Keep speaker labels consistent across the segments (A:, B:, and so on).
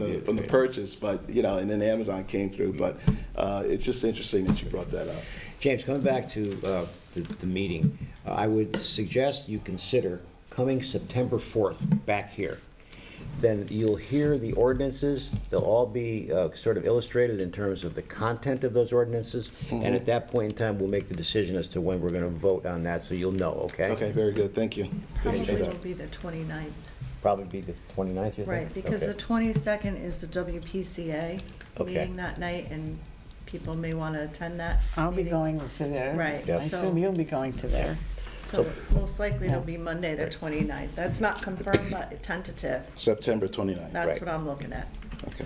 A: the from the purchase, but you know, and then Amazon came through. But uh, it's just interesting that you brought that up.
B: James, coming back to uh, the the meeting, uh, I would suggest you consider coming September 4th back here. Then you'll hear the ordinances, they'll all be uh, sort of illustrated in terms of the content of those ordinances, and
A: Mm-hmm.
B: at that point in time, we'll make the decision as to when we're going to vote on that, so you'll know, okay?
A: Okay, very good. Thank you. Thank you
C: Probably
A: for that.
C: will be the 29th,
B: Probably be the 29th, you think?
C: right, because the
B: Okay.
C: 22nd is the WPCA
B: Okay.
C: meeting that night, and people may want to attend that.
D: I'll be
C: meeting.
D: going to there.
C: Right,
D: I
B: Yeah.
C: so-
D: assume you'll be going to there.
C: So most likely it'll be Monday, the
B: Right.
C: 29th. That's not confirmed, but tentative.
A: September 29th.
C: That's
B: Right.
C: what I'm looking at.
A: Okay.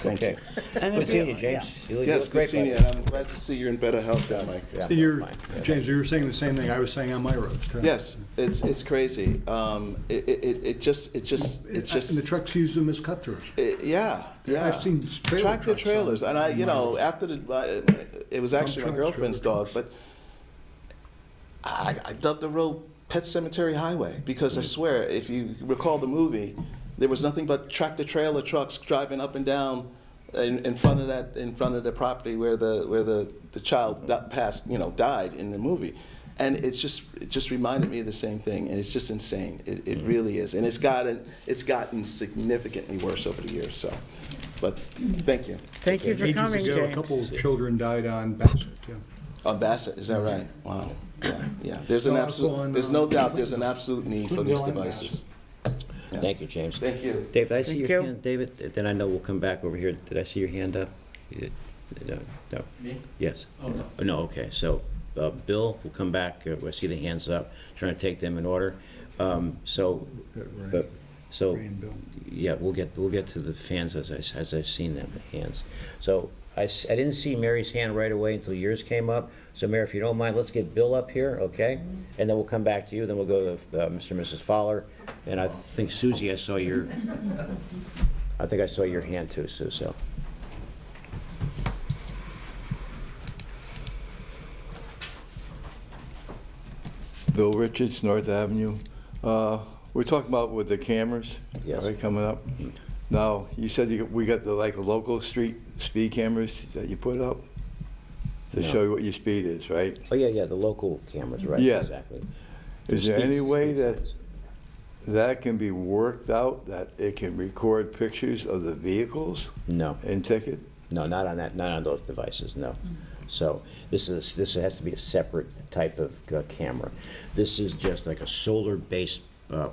A: Thank you.
B: Okay. Good seeing you, James. You look- you
A: Yes,
B: look great,
A: good seeing you,
B: bud.
A: and I'm glad to see you're in better health down Mike.
B: Yeah,
E: And you're,
B: fine. Yeah.
E: James, you were saying the same thing I was saying on my roads. too.
A: Yes, it's, it's crazy. Um, it, it- it, it just, it just,
E: And
A: it just.
E: the trucks use them as cut throughs.
A: It- Yeah, yeah.
E: I've seen trailer
A: Tractor
E: trucks on-
A: trailers, and I, you
E: on my
A: know,
E: road.
A: after the, uh, it was actually my
E: Dump trucks,
A: girlfriend's
E: trailer
A: dog, but I, I dubbed the road Pet Cemetery Highway, because I swear, if you recall the movie, there was nothing but tractor trailer trucks driving up and down in, in front of that, in front of the property where the, where the, the child that passed, you know, died in the movie. And it's just, it just reminded me of the same thing, and it's just insane. It, it really is, and it's gotten, it's gotten significantly worse over the years. So, but thank you.
D: Thank you for
E: Ages
D: coming,
E: ago, A couple
D: James.
E: of children died on Bassett, yeah.
A: Oh, Bassett, is that right? Wow. Yeah, yeah. There's an
E: No, I was
A: absolute.
E: going,
A: There's no
E: uh,
A: doubt. There's an absolute need for
E: Couldn't
A: these
E: go on
A: devices. Yeah.
B: Thank you, James.
A: Thank you.
B: David, I see
D: Thank
B: your
D: you.
B: hand, David, then I know we'll come back over here. Did I see your hand up? You- No, no.
F: Me?
B: Yes.
F: Oh, no.
B: No, okay, so, uh, Bill, we'll come back, uh, I see the hands up, trying to take them in order. Um, So,
E: Ray-
B: but- so,
E: Ray and Bill.
B: yeah, we'll get, we'll get to the fans as I, s- as I've seen them, the hands. So, I, s- I didn't see Mary's hand right away until yours came up. So Mayor, if you don't mind, let's get Bill up here, okay? And then we'll come back to you, then we'll go to uh, Mr. and Mrs. Fowler. And I think Susie, I saw your, I think I saw your hand too, Sue, so.
G: Bill Richards, North Avenue. Uh, We're talking about with the cameras.
B: Yes.
G: right, Coming up. Now, you said you- we got the, like, local street speed cameras that you put up to
B: No.
G: show you what your speed is, right?
B: Oh, yeah, yeah, the local cameras, right?
G: Yeah.
B: Exactly.
G: Is there any
B: Speed-
G: way
B: speed
G: that
B: signs.
G: that can be worked out, that it can record pictures of the vehicles
B: No,
G: and ticket?
B: no, not on that, not on those devices, no. So this is, this has to be a separate type of uh, camera. This is just like a solar-based uh,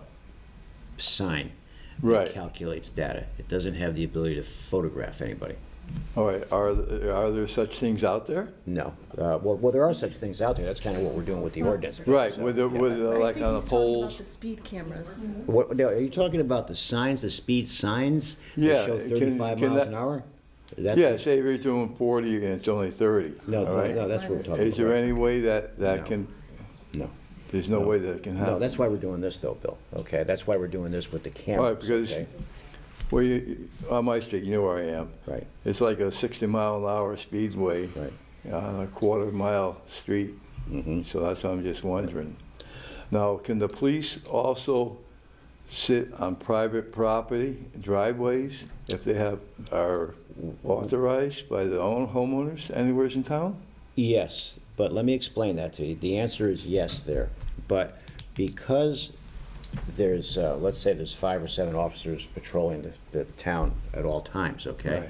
B: sign. that
G: Right.
B: Calculates data. It doesn't have the ability to photograph anybody.
G: All right, are, th- are there such things out there?
B: No. Uh, Well, well, there are such things out there. That's kind of what we're doing with the ordinance.
G: Right,
B: So-
G: with, the- with,
C: I
G: the, like,
C: think
G: on the
C: he's talking about
G: poles?
C: The speed cameras.
B: What, now, are you talking about the signs, the speed signs? that
G: Yeah,
B: Show
G: can-
B: 35
G: can
B: miles
G: that-
B: an hour? That's-
G: Yeah, say you're doing 40 and it's only 30,
B: No,
G: all
B: no,
G: right?
B: no, that's what we're talking about.
G: Is there any way that,
B: No.
G: that can,
B: No.
G: there's no way that it can happen?
B: No, that's why we're doing this though, Bill, okay? That's why we're doing this with the
G: All right,
B: cameras,
G: because,
B: okay?
G: well, you, on my street, you know where I am.
B: Right.
G: It's like a 60 mile an hour speedway
B: Right. Mm-hmm.
G: on a quarter mile street. So that's what I'm just wondering. Now, can the police also sit on private property, driveways, if they have, are authorized by the own homeowners anywhere in town?
B: Yes, but let me explain that to you. The answer is yes there. But because there's, uh, let's say there's five or seven officers patrolling the, the town at all times, okay?
G: Right.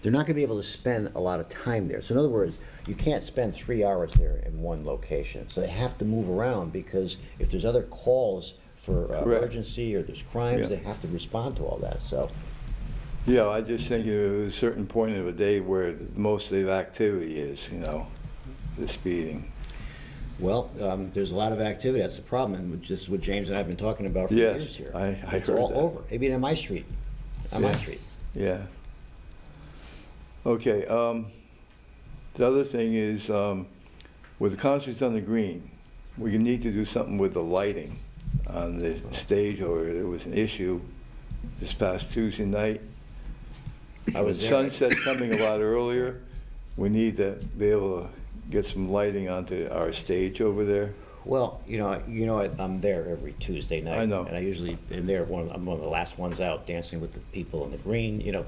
B: They're not gonna be able to spend a lot of time there. So in other words, you can't spend three hours there in one location. So they have to move around because if there's other calls for uh,
G: Correct.
B: emergency or there's crimes,
G: Yeah.
B: they have to respond to all that, so.
G: Yeah, I just think at a certain point of the day where most of the activity is, you know, the speeding.
B: Well, um, there's a lot of activity, that's the problem, and just what James and I have been talking about for
G: Yes,
B: years here.
G: I- I
B: It's
G: heard
B: all
G: that.
B: over, I mean, on my street, on my
G: Yeah.
B: street.
G: Yeah. Okay, um, the other thing is, um, with the concerts on the green, we need to do something with the lighting on the stage, or there was an issue this past Tuesday night.
B: I was there.
G: Sunset's coming a lot earlier. We need to be able to get some lighting onto our stage over there.
B: Well, you know, you know, I- I'm there every Tuesday night.
G: I know.
B: And I usually am there, one, I'm one of the last ones out dancing with the people in the green, you know,